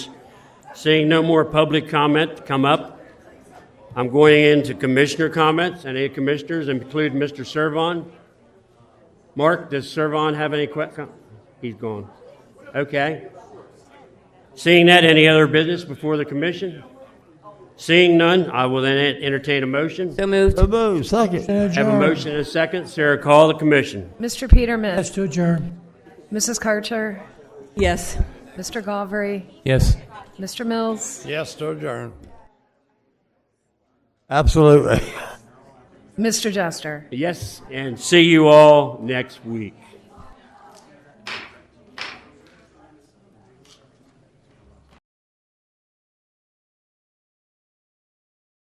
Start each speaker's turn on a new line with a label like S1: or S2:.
S1: Seeing no more public comment come up, I'm going into commissioner comments. Any commissioners include Mr. Servon? Mark, does Servon have any que, com- he's gone. Okay. Seeing that, any other business before the commission? Seeing none, I will then entertain a motion.
S2: So moved.
S3: So moved. Second.
S1: Have a motion and a second. Sarah, call the commission.
S4: Mr. Peterman,
S5: Yes, to adjourn.
S4: Mrs. Carter,
S2: Yes.
S4: Mr. Galvery,
S6: Yes.
S4: Mr. Mills,
S3: Yes, to adjourn. Absolutely.
S4: Mr. Jester.
S1: Yes, and see you all next week.